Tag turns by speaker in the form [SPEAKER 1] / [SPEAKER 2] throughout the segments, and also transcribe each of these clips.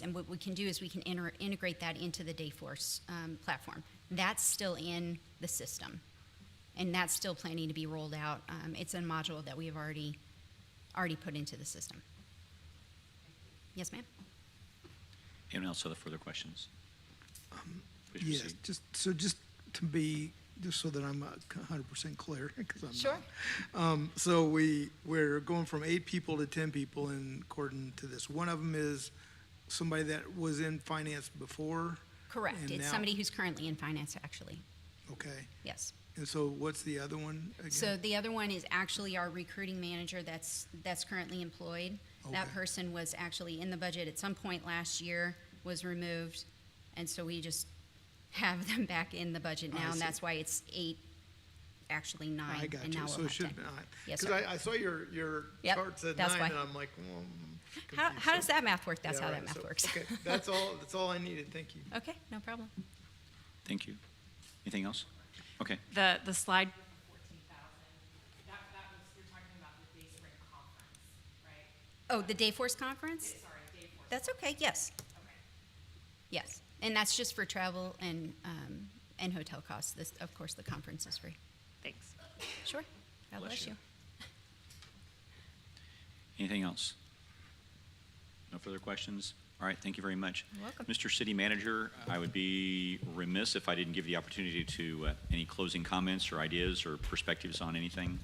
[SPEAKER 1] And what we can do is we can inter- integrate that into the Dayforce um, platform. That's still in the system, and that's still planning to be rolled out. Um, it's a module that we have already already put into the system. Yes, ma'am.
[SPEAKER 2] Anyone else have further questions? Please
[SPEAKER 3] Yes,
[SPEAKER 2] proceed.
[SPEAKER 3] just, so just to be, just so that I'm hundred percent clear, 'cause I'm not. Um, so we, we're going from eight people to ten people in according to this. One of them is somebody that was in finance before.
[SPEAKER 1] Correct.
[SPEAKER 3] and
[SPEAKER 1] it's
[SPEAKER 3] now-
[SPEAKER 1] somebody who's currently in finance, actually.
[SPEAKER 3] Okay,
[SPEAKER 1] Yes.
[SPEAKER 3] and so what's the other one again?
[SPEAKER 1] So the other one is actually our recruiting manager that's, that's currently employed. That
[SPEAKER 3] Okay.
[SPEAKER 1] person was actually in the budget at some point last year, was removed, and so we just have them back in the budget
[SPEAKER 3] Oh, I
[SPEAKER 1] now, and
[SPEAKER 3] see. Oh,
[SPEAKER 1] that's why it's eight, actually
[SPEAKER 3] I
[SPEAKER 1] nine,
[SPEAKER 3] got
[SPEAKER 1] and now
[SPEAKER 3] you,
[SPEAKER 1] we'll
[SPEAKER 3] so it
[SPEAKER 1] have
[SPEAKER 3] should have
[SPEAKER 1] ten.
[SPEAKER 3] been nine.
[SPEAKER 1] Yes,
[SPEAKER 3] Cause
[SPEAKER 1] sir.
[SPEAKER 3] I, I saw your, your
[SPEAKER 1] Yep,
[SPEAKER 3] chart said
[SPEAKER 1] that's
[SPEAKER 3] nine
[SPEAKER 1] why.
[SPEAKER 3] and I'm like, well. I'm
[SPEAKER 1] How,
[SPEAKER 3] confused.
[SPEAKER 1] how
[SPEAKER 3] So-
[SPEAKER 1] does that math work? That's
[SPEAKER 3] Yeah,
[SPEAKER 1] how
[SPEAKER 3] right,
[SPEAKER 1] that math
[SPEAKER 3] so-
[SPEAKER 1] works.
[SPEAKER 3] Okay, that's all, that's all I needed, thank you.
[SPEAKER 1] Okay, no problem.
[SPEAKER 2] Thank you. Anything else? Okay,
[SPEAKER 4] The, the slide,
[SPEAKER 5] fourteen thousand. That, that was, you're talking about the Day Spring Conference, right?
[SPEAKER 1] Oh, the Dayforce conference?
[SPEAKER 5] Sorry, Day Force,
[SPEAKER 1] That's okay, yes,
[SPEAKER 5] okay.
[SPEAKER 1] yes. And that's just for travel and, um, and hotel costs. This, of course, the conference is free.
[SPEAKER 4] thanks.
[SPEAKER 1] Sure. God
[SPEAKER 2] Bless
[SPEAKER 1] bless
[SPEAKER 2] you.
[SPEAKER 1] you.
[SPEAKER 2] anything else? No further questions? All right, thank you very much.
[SPEAKER 1] You're welcome.
[SPEAKER 2] Mr. City Manager, I would be remiss if I didn't give you the opportunity to, uh, any closing comments or ideas or perspectives on anything?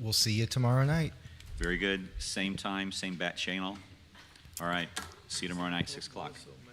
[SPEAKER 6] We'll see you tomorrow night.
[SPEAKER 2] Very good. Same time, same bat channel. All right, see you tomorrow night, 6 o'clock.
[SPEAKER 3] So mad.